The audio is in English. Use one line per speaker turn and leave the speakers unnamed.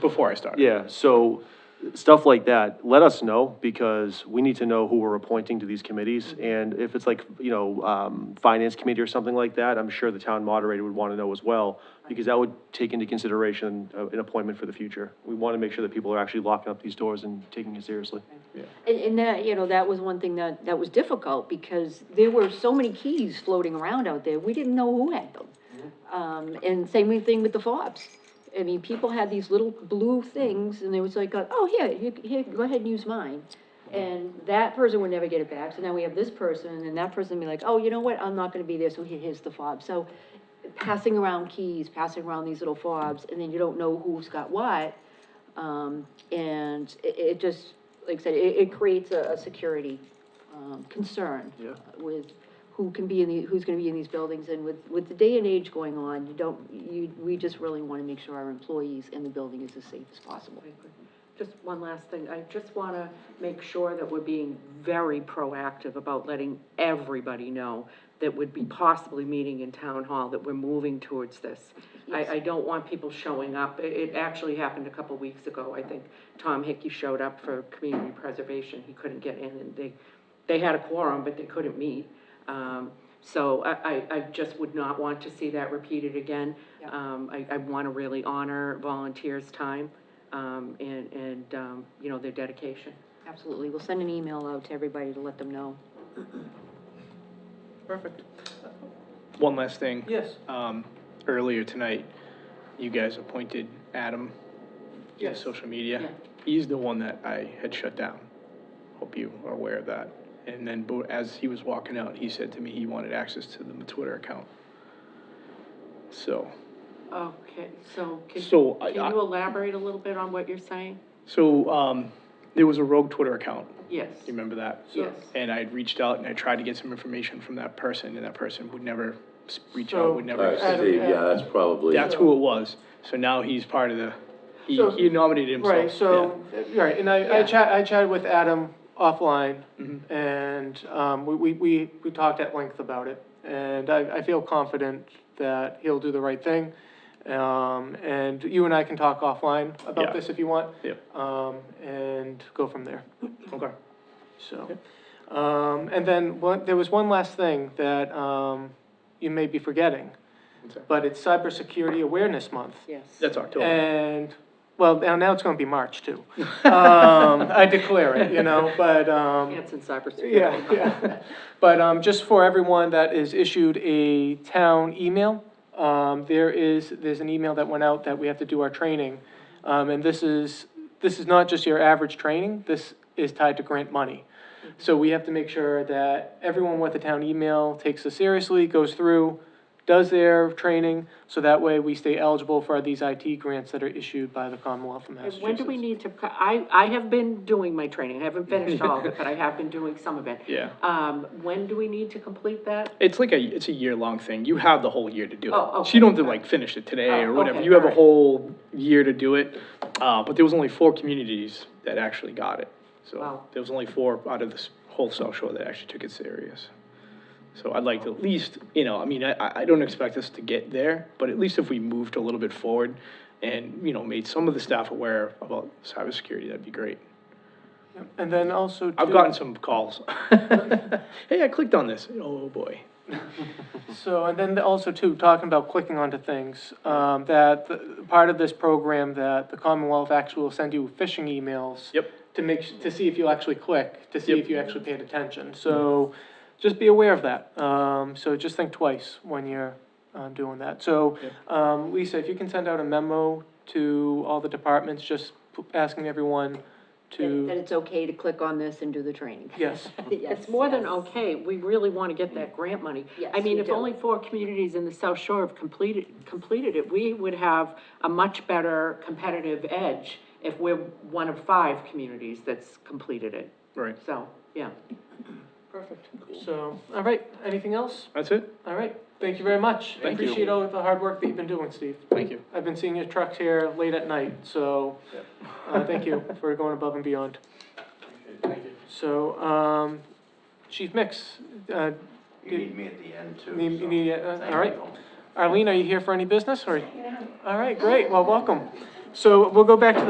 before I started.
Yeah, so stuff like that, let us know, because we need to know who we're appointing to these committees. And if it's like, you know, um, finance committee or something like that, I'm sure the town moderator would want to know as well, because that would take into consideration uh, an appointment for the future. We want to make sure that people are actually locking up these doors and taking it seriously.
And, and that, you know, that was one thing that, that was difficult, because there were so many keys floating around out there, we didn't know who had them. Um, and same thing with the fobs. I mean, people had these little blue things, and they was like, oh, here, here, here, go ahead and use mine. And that person would never get it back, so now we have this person, and that person would be like, oh, you know what, I'm not gonna be there, so here- here's the fob. So passing around keys, passing around these little fobs, and then you don't know who's got what. Um, and it, it just, like I said, it, it creates a, a security, um, concern.
Yeah.
With who can be in the, who's gonna be in these buildings, and with, with the day and age going on, you don't, you, we just really wanna make sure our employees in the building is as safe as possible.
Just one last thing, I just want to make sure that we're being very proactive about letting everybody know that would be possibly meeting in town hall, that we're moving towards this. I, I don't want people showing up, it, it actually happened a couple weeks ago, I think Tom Hickey showed up for community preservation, he couldn't get in, and they, they had a quorum, but they couldn't meet. Um, so I, I, I just would not want to see that repeated again. Um, I, I want to really honor volunteers' time, um, and, and, um, you know, their dedication.
Absolutely, we'll send an email out to everybody to let them know.
Perfect. One last thing.
Yes.
Um, earlier tonight, you guys appointed Adam to
Yes.
social media.
Yeah.
He's the one that I had shut down. Hope you are aware of that. And then bo- as he was walking out, he said to me he wanted access to the Twitter account. So,
Okay, so can,
So I-
can you elaborate a little bit on what you're saying?
so, um, there was a rogue Twitter account.
Yes.
You remember that?
Yes.
And I'd reached out and I tried to get some information from that person and that person would never s- reach
So-
out, would never.
Alright,
send
Uh, Steve, yeah, that's probably.
That's who it was. So now he's part of the, he,
So-
he nominated himself.
Right, so, right, and I, I
Yeah.
chat, I chatted with Adam offline,
Mm-hmm.
and, um, we, we, we, we talked at length about it. And I, I feel confident that he'll do the right thing, um, and you and I can talk offline
Yeah.
about this if you want.
Yep.
Um, and go from there.
yeah. Okay.
So, um, and then one, there was one last thing that, um, you may be forgetting, but it's Cybersecurity Awareness Month.
Yes.
That's October.
And, well, now, now it's gonna be March too. Um, I declare it, you know, but, um,
It's in cybersecurity.
yeah, yeah. But, um, just for everyone that is issued a town email, um, there is, there's an email that went out that we have to do our training. Um, and this is, this is not just your average training, this is tied to grant money. So we have to make sure that everyone with a town email takes this seriously, goes through, does their training, so that way we stay eligible for these IT grants that are issued by the Commonwealth of
And
Massachusetts.
when do we need to, co- I, I have been doing my training, I haven't finished all of it, but I have been doing some of it.
Yeah.
Um, when do we need to complete that?
It's like a, it's a year-long thing. You have the whole year to do it.
Oh,
So you
okay.
don't have to like finish it today or
Oh,
whatever.
okay,
You have a
alright.
whole year to do it. Uh, but there was only four communities that actually got it. So
Wow.
there was only four out of this whole South Shore that actually took it serious. So I'd like to at least, you know, I mean, I- I, I don't expect us to get there, but at least if we moved a little bit forward and, you know, made some of the staff aware about cybersecurity, that'd be great.
And then also.
I've
too-
gotten some calls. Hey, I clicked on this. Oh, boy.
So, and then also too, talking about clicking onto things, um, that the, part of this program that the Commonwealth actually will send you phishing emails.
Yep.
To make, s- to see if you actually click, to see
Yep.
if you actually paid attention, so just be aware of that. Um, so just think twice when you're, um, doing that. So, um, Lisa, if you can send out a memo to all the departments, just p- asking everyone
That that
to,
it's okay to click on this and do the training.
yes.
It's more than okay, we really want to get that grant money.
Yes,
I mean,
we
if
do.
only four communities in the South Shore have completed, completed it, we would have a much better competitive edge if we're one of five communities that's completed it.
Right.
So, yeah.
Perfect. So, all right, anything else?
That's it?
All right, thank you very much. I
Thank you.
appreciate all the hard work that you've been doing, Steve.
Thank you.
I've been seeing your trucks here late at night, so, uh, thank you for going above and beyond. So, um, Chief Mix, uh,
You need me at the end too.
Need-
so
you need- uh,
thank
all right.
you.
Arlene, are you here for any business, or? All right, great, well, welcome. so we'll go back to